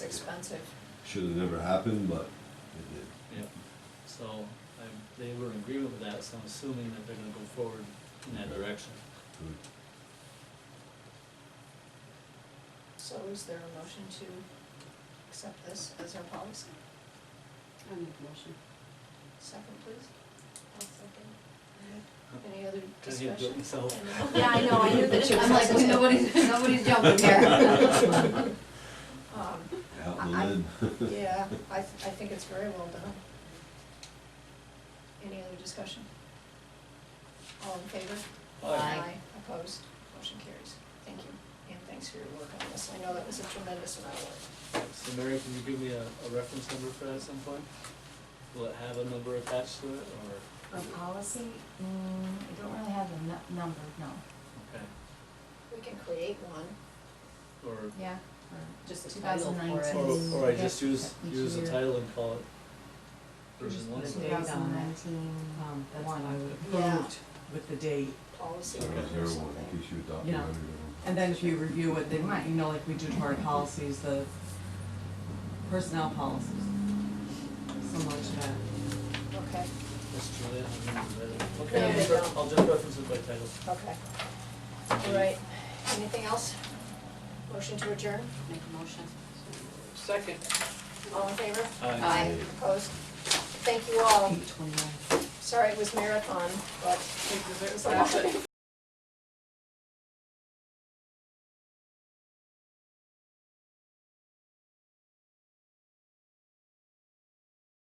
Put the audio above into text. expensive. Should have never happened, but it did. Yep, so I, they were in agreement with that, so I'm assuming that they're gonna go forward in that direction. Good. So is there a motion to accept this as our policy? I make a motion. Second, please. I'll second. Any other Does he do it discussion? himself? I Yeah, I know, I knew that, you I'm like, accepted it. nobody's, nobody's jumping here. Um, Out I- in the lid. Yeah, I, th- I think it's very well done. Any other discussion? All in favor? Aye. Opposed? Motion carries. Thank you, and thanks for your work on this. I know that was a tremendous amount of work. So Mary, can you give me a, a reference number for that at some point? Will it have a number attached to it, or, For policy, mm, I don't really have a nu- number, no. okay, We can create one. or, Yeah. Just Just a title for it. 2019. or, or I just Yeah, use, each use the year. title and call it version Just one? put a Two date on it. thousand nineteen, Um, that's what I one. would Yeah. approved with the date, policy That was or their one, in something. case you adopted Yeah. everything. and then if you review it, then, Right. you know, like we do to our policies, the personnel policies. Similar to that. Okay, That's Julia, I remember that. No, Okay, I'll they just re- don't. I'll just reference it by title. okay. All right, anything else? Motion to adjourn? Make a motion. Second. All in favor? Aye. Aye. Opposed? Thank you all. Eight twenty-nine. Sorry it was marathon, but Take the it vote. was a lot.